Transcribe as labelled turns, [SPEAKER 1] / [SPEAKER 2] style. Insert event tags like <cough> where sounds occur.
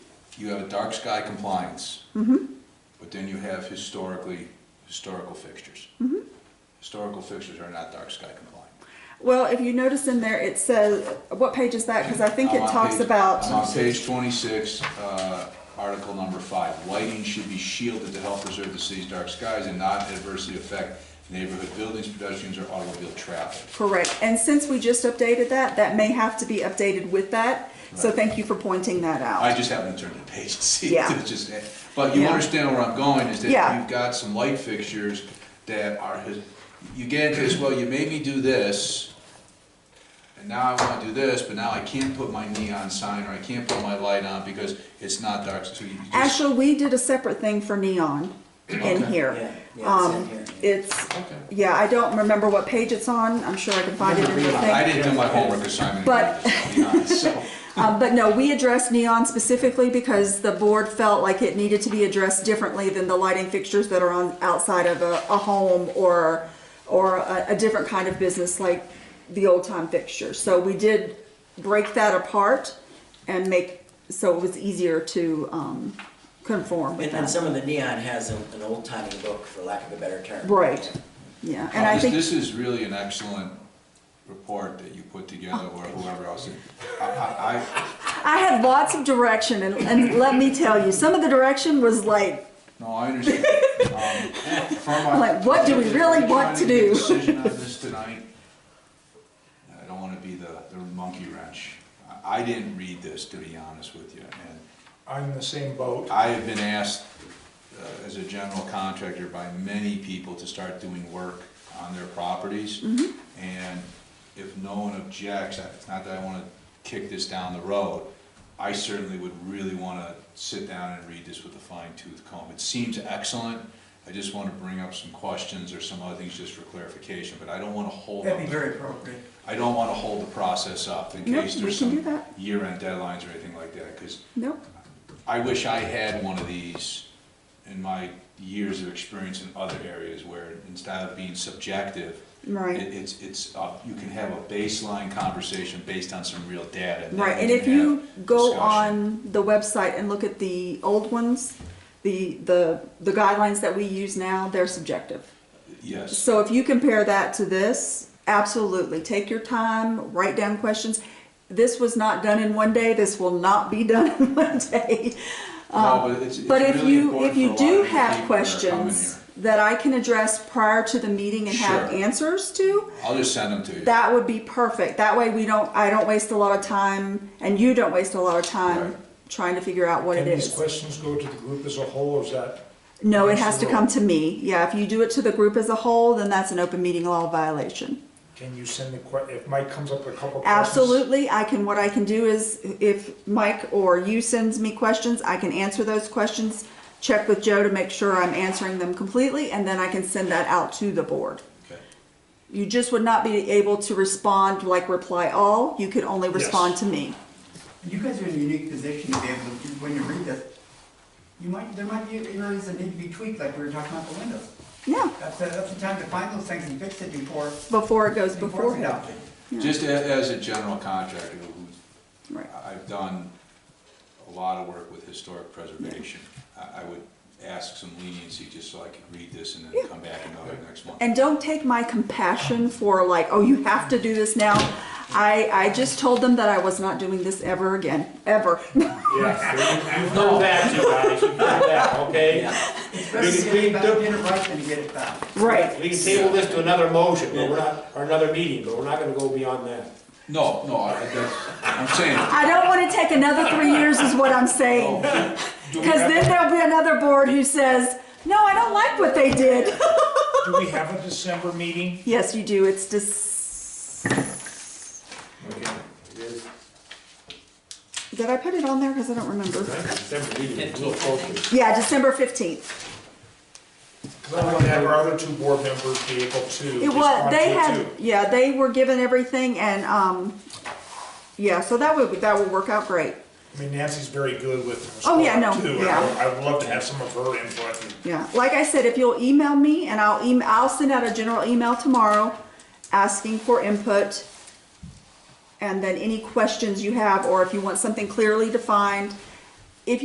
[SPEAKER 1] you have a dark sky compliance.
[SPEAKER 2] Mm-hmm.
[SPEAKER 1] But then you have historically, historical fixtures.
[SPEAKER 2] Mm-hmm.
[SPEAKER 1] Historical fixtures are not dark sky compliant.
[SPEAKER 2] Well, if you notice in there, it says, what page is that? Because I think
[SPEAKER 1] I'm
[SPEAKER 2] it
[SPEAKER 1] on
[SPEAKER 2] talks
[SPEAKER 1] page- I'm
[SPEAKER 2] about,
[SPEAKER 1] on page twenty-six, uh, article number five, lighting should be shielded to help preserve the city's dark skies and not adversely affect neighborhood buildings, pedestrians, or automobile traffic.
[SPEAKER 2] correct. And since we just updated that, that may have to be updated with that. So
[SPEAKER 1] Right.
[SPEAKER 2] thank you for pointing that
[SPEAKER 1] I
[SPEAKER 2] out.
[SPEAKER 1] just happened to turn the page <laughs> to see,
[SPEAKER 2] Yeah.
[SPEAKER 1] it's just, but you
[SPEAKER 2] Yeah.
[SPEAKER 1] understand where I'm going, is that
[SPEAKER 2] Yeah.
[SPEAKER 1] you've got some light fixtures that are, his- you get into this, well, you made me do this, and now I wanna do this, but now I can't put my neon sign, or I can't put my light on because it's not dark, so you just.
[SPEAKER 2] Actually, we did a separate thing for neon in
[SPEAKER 1] Okay.
[SPEAKER 2] here.
[SPEAKER 3] Yeah, yeah, it's in
[SPEAKER 2] Um,
[SPEAKER 3] here.
[SPEAKER 2] it's,
[SPEAKER 1] Okay.
[SPEAKER 2] yeah, I don't remember what page it's on. I'm sure I can find it in the
[SPEAKER 3] Remember
[SPEAKER 2] thing.
[SPEAKER 1] I didn't do my homework assignment. <laughs>
[SPEAKER 2] But-
[SPEAKER 1] I'll be honest, so.
[SPEAKER 2] Um, but no, we addressed neon specifically because the board felt like it needed to be addressed differently than the lighting fixtures that are on outside of a, a home or, or a, a different kind of business like the old time fixtures. So we did break that apart and make, so it was easier to, um, conform with
[SPEAKER 3] And, and
[SPEAKER 2] that.
[SPEAKER 3] some of the neon has an, an old timey look, for lack of a better term.
[SPEAKER 2] Right, yeah, and I
[SPEAKER 1] This-
[SPEAKER 2] think,
[SPEAKER 1] This is really an excellent report that you put together, or whoever else. did. I, I, I-
[SPEAKER 2] I had lots of direction and, and let me tell you, some of the direction was like,
[SPEAKER 1] No, I
[SPEAKER 2] <laughs>
[SPEAKER 1] understand. Um, from my-
[SPEAKER 2] Like, what do we really
[SPEAKER 1] We're
[SPEAKER 2] want to
[SPEAKER 1] trying make a
[SPEAKER 2] do?
[SPEAKER 1] Decision
[SPEAKER 2] <laughs>
[SPEAKER 1] on this tonight. I don't wanna be the, the monkey wrench. I, I didn't read this, to be honest with you, and
[SPEAKER 4] I'm in the same boat.
[SPEAKER 1] I have been asked, uh, as a general contractor by many people to start doing work on their properties.
[SPEAKER 2] Mm-hmm.
[SPEAKER 1] And if no one objects, I- it's not that I wanna kick this down the road, I certainly would really wanna sit down and read this with a fine tooth comb. It seems excellent, I just wanna bring up some questions or some other things just for clarification, but I don't wanna hold up.
[SPEAKER 3] That'd be very appropriate.
[SPEAKER 1] I don't wanna hold the process up in
[SPEAKER 2] Nope,
[SPEAKER 1] case
[SPEAKER 2] we
[SPEAKER 1] there's
[SPEAKER 2] can do
[SPEAKER 1] some
[SPEAKER 2] that.
[SPEAKER 1] year-end deadlines or anything like that, cause
[SPEAKER 2] nope,
[SPEAKER 1] I wish I had one of these in my years of experience in other areas where instead of being subjective,
[SPEAKER 2] Right.
[SPEAKER 1] it- it's, it's, uh, you can have a baseline conversation based on some real data. then
[SPEAKER 2] Right,
[SPEAKER 1] we
[SPEAKER 2] and
[SPEAKER 1] can
[SPEAKER 2] if you
[SPEAKER 1] have
[SPEAKER 2] go
[SPEAKER 1] discussion.
[SPEAKER 2] on the website and look at the old ones, the, the, the guidelines that we use now, they're subjective.
[SPEAKER 1] Yes,
[SPEAKER 2] So if you compare that to this, absolutely, take your time, write down questions. This was not done in one day, this will not be <laughs> done in one day. Um,
[SPEAKER 1] no, but it's, it's
[SPEAKER 2] But if
[SPEAKER 1] really
[SPEAKER 2] you,
[SPEAKER 1] important
[SPEAKER 2] if
[SPEAKER 1] for a
[SPEAKER 2] you
[SPEAKER 1] lot
[SPEAKER 2] do
[SPEAKER 1] of the
[SPEAKER 2] have
[SPEAKER 1] people that are coming
[SPEAKER 2] questions that I can address prior to the meeting and have
[SPEAKER 1] Sure.
[SPEAKER 2] answers to,
[SPEAKER 1] here. I'll just send them to you.
[SPEAKER 2] that would be perfect. That way we don't, I don't waste a lot of time and you don't waste a lot of time
[SPEAKER 1] Right.
[SPEAKER 2] trying to figure out what it
[SPEAKER 4] Can these
[SPEAKER 2] is.
[SPEAKER 4] questions go to the group as a whole, or is that?
[SPEAKER 2] No, it
[SPEAKER 4] against
[SPEAKER 2] has
[SPEAKER 4] the
[SPEAKER 2] to come
[SPEAKER 4] rule?
[SPEAKER 2] to me. Yeah, if you do it to the group as a whole, then that's an open meeting law violation.
[SPEAKER 4] Can you send the que, if Mike comes up with a couple questions?
[SPEAKER 2] Absolutely, I can, what I can do is if Mike or you sends me questions, I can answer those questions, check with Joe to make sure I'm answering them completely, and then I can send that out to the board.
[SPEAKER 1] Okay.
[SPEAKER 2] You just would not be able to respond like reply all, you could only respond to me.
[SPEAKER 5] You guys are in a unique position to be able to, when you read this, you might, there might be areas that need to be tweaked, like we were talking about the windows.
[SPEAKER 2] Yeah,
[SPEAKER 5] That's, the- that's the time to find those things and fix it before,
[SPEAKER 2] before it goes
[SPEAKER 5] before it's
[SPEAKER 2] beforehand.
[SPEAKER 5] adopted.
[SPEAKER 1] Just a- as a general contractor who's
[SPEAKER 2] Right.
[SPEAKER 1] I- I've done a lot of work with historic preservation. I, I would ask some leniency just so I could read this and then come back and go it next month.
[SPEAKER 2] And don't take my compassion for like, oh, you have to do this now. I, I just told them that I was not doing this ever again, ever. <laughs>
[SPEAKER 6] Yes, <laughs> you- you've heard that, you guys, you've heard that, okay?
[SPEAKER 5] It's better to get it back, get it right than to get it back.
[SPEAKER 2] Right.
[SPEAKER 6] We can table this to another motion, but we're not, or another meeting, but we're not gonna go beyond that.
[SPEAKER 1] No, no, I, that's, I'm saying,
[SPEAKER 2] I don't want to take another three years is what I'm saying.
[SPEAKER 6] Oh,
[SPEAKER 2] <laughs> Because then there'll be another board who says, no, I don't like what they did. <laughs>
[SPEAKER 4] Do we have a December
[SPEAKER 6] <laughs>
[SPEAKER 4] meeting?
[SPEAKER 2] Yes, you do. It's just,
[SPEAKER 6] Okay. It is-
[SPEAKER 2] did I put it on there? Because I don't remember.
[SPEAKER 6] right, December meeting, it's a little closer.
[SPEAKER 2] Yeah, December 15th.
[SPEAKER 4] Because I want to have our other two board members be able to
[SPEAKER 2] It was,
[SPEAKER 4] respond to
[SPEAKER 2] they
[SPEAKER 4] it
[SPEAKER 2] had,
[SPEAKER 4] too.
[SPEAKER 2] yeah, they were given everything and, um, yeah, so that would, that would work out great.
[SPEAKER 4] I mean, Nancy's very good with.
[SPEAKER 2] Oh, yeah, no,
[SPEAKER 4] too, and I
[SPEAKER 2] yeah.
[SPEAKER 4] would- I would love to have some of her input. and-
[SPEAKER 2] Yeah, like I said, if you'll email me and I'll email, I'll send out a general email tomorrow asking for input. And then any questions you have, or if you want something clearly defined,